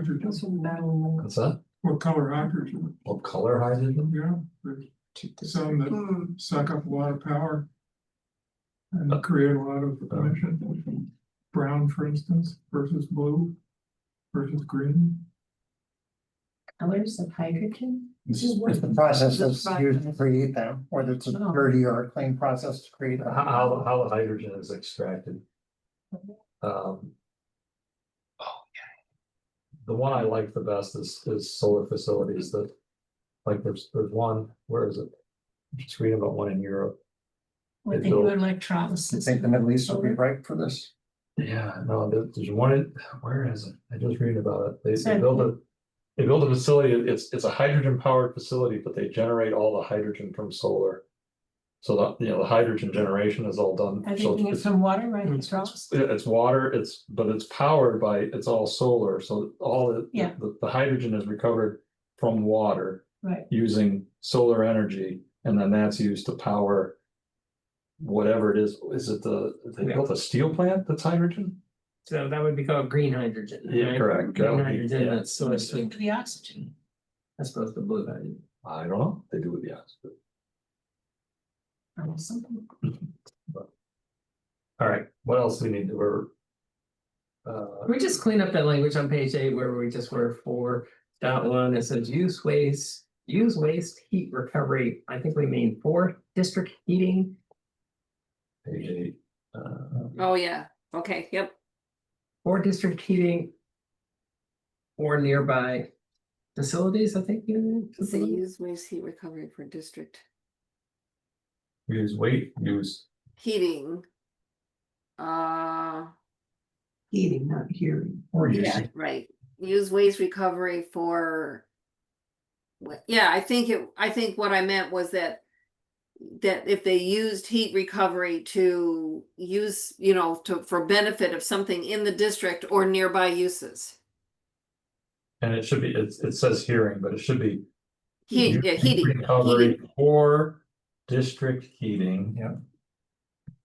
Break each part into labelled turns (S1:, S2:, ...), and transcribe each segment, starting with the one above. S1: hydrogen,
S2: What's that?
S1: what color hydrogen,
S2: What color hydrogen?
S1: yeah, but some that
S3: Hmm.
S1: suck up a lot of power. And create a lot of emission, brown, for instance, versus blue, versus green.
S4: Colors of hydrogen?
S5: This is the process
S4: The
S5: that's used to
S4: process.
S5: create them, whether it's a
S4: Oh.
S5: dirty or a clean process to create
S2: How,
S5: them.
S2: how, how the hydrogen is extracted. Um. oh, yeah. The one I like the best is, is solar facilities that, like, there's, there's one, where is it? Just reading about one in Europe.
S4: Or
S2: It's
S4: they
S2: all-
S4: do
S5: I
S4: electrolysis?
S5: think the Middle East would be ripe for this.
S2: Yeah, no, there- there's one, in- where is it? I just read about it. They, they
S4: Sorry.
S2: built a. They built a facility, it's, it's a hydrogen powered facility, but they generate all the hydrogen from solar. So that, you know, the hydrogen generation is all done.
S4: Are they
S2: so
S4: doing it
S2: it's-
S4: from water, right?
S6: Hmm.
S1: it's-
S4: Electrolysis?
S2: Yeah, it's water, it's, but it's powered by, it's all solar, so all the.
S4: Yeah.
S2: The, the hydrogen is recovered from water
S4: Right,
S2: using solar energy, and then that's used to power. Whatever it is, is it the, they
S6: Yeah.
S2: built a steel plant that's hydrogen?
S6: So that would be called green hydrogen.
S2: Yeah,
S6: right?
S2: correct. That
S6: Green
S2: would be-
S6: hydrogen,
S2: yeah.
S6: that's sort
S4: Mixed
S6: of,
S4: with the oxygen.
S6: that's supposed to blue hydrogen.
S2: I don't know, they do it, yes.
S4: or something.
S2: All right, what else we need to, we're. Uh,
S6: Can we just clean up that language on page eight where we just were four dot one, it says use waste, use waste heat recovery, I think we mean for district heating.
S2: page eight, uh,
S7: Oh, yeah, okay, yep,
S6: Or district heating. Or nearby facilities, I think. you-
S7: so use waste heat recovery for district
S2: use weight, use,
S7: heating. Uh,
S4: Heating, not hearing.
S2: or use,
S7: yeah, right, use waste recovery for. what- Yeah, I think it, I think what I meant was that. That if they used heat recovery to use, you know, to, for benefit of something in the district or nearby uses.
S2: and it should be, it's, it says hearing, but it should be.
S7: Heat, yeah,
S2: Heat
S7: heating,
S2: Recovery or district heating.
S5: Yeah.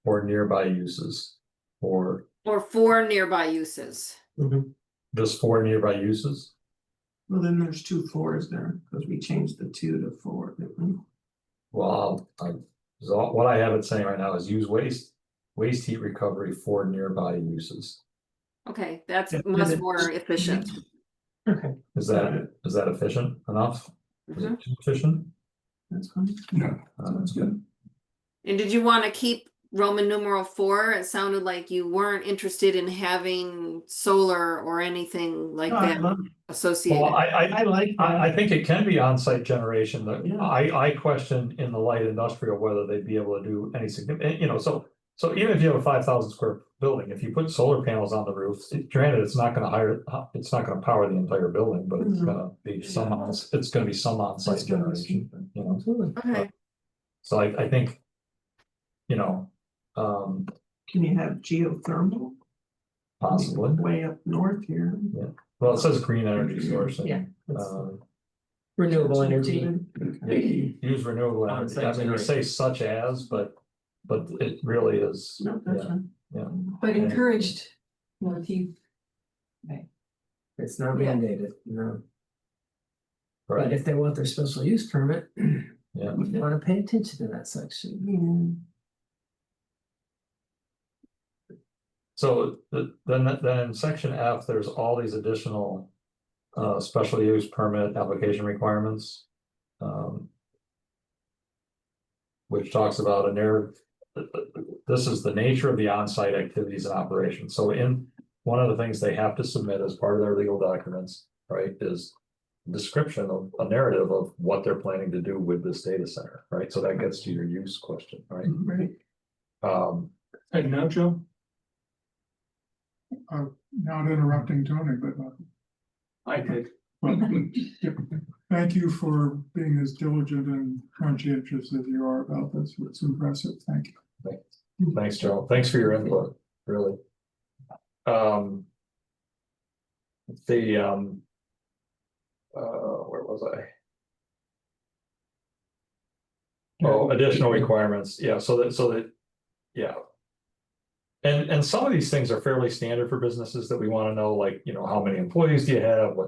S2: Or nearby uses, or
S7: or for nearby uses.
S2: just for nearby uses,
S3: Well, then there's two fours there, because we changed the two to four. didn't we?
S2: well, I, so what I have it saying right now is use waste. Waste heat recovery for nearby uses,
S7: Okay, that's
S3: Yeah, and
S7: much
S3: it-
S7: more efficient.
S6: Okay,
S2: is that, is that efficient enough? Is
S7: Mhm.
S2: it efficient?
S3: That's fine.
S2: Uh, That's good.
S7: And did you want to keep Roman numeral four? It sounded like you weren't interested in having solar or anything like
S3: No, I
S7: that
S3: love-
S2: Well,
S7: associated.
S2: I, I,
S3: I like
S2: I,
S3: that.
S2: I think it can be on-site generation, but
S3: Yeah.
S2: I, I question in the light industrial whether they'd be able to do any significant, you know, so. So even if you have a five thousand square building, if you put solar panels on the roof, it- granted, it's not gonna hire, uh, it's not gonna power the entire building, but it's
S3: Mhm.
S2: gonna be some on, it's gonna be some
S3: That's
S2: on-site
S3: gonna be
S2: generation,
S3: something.
S2: you know, Uh,
S7: Okay,
S2: so I, I think. You know, um,
S3: Can you have geothermal
S2: possibly,
S3: way up north here?
S2: well, it says green energy source. and,
S6: yeah, that's
S2: Um,
S6: renewable energy.
S2: use renewable
S6: On
S2: energy,
S6: site
S2: I mean, you say such as, but, but it really is.
S3: No, that's
S2: yeah.
S3: fine.
S2: yeah.
S4: But
S2: Yeah.
S4: encouraged, you know, if you
S6: It's not
S4: Yeah.
S6: mandated, no, but
S2: Right,
S6: if they want their special use permit,
S2: yeah,
S6: they wanna pay attention to that section.
S2: so th- then, then in section F, there's all these additional. Uh, special use permit application requirements. Um. Which talks about a narrative, this is the nature of the on-site activities and operations, so in. One of the things they have to submit as part of their legal documents, right, is. Description of a narrative of what they're planning to do with this data center, right, so that gets to your use question, right?
S3: Right,
S2: Um,
S1: And now, Joe? Uh, not interrupting Tony, but. uh,
S6: I did.
S1: Well, Thank you for being as diligent and conscientious as you are about this. It's impressive. Thank you.
S2: Thanks, Joe. Thanks for your input, really. Um. The, um. Uh, where was I? Oh, additional requirements. Yeah, so that, so that, yeah. And, and some of these things are fairly standard for businesses that we want to know, like, you know, how many employees do you have? What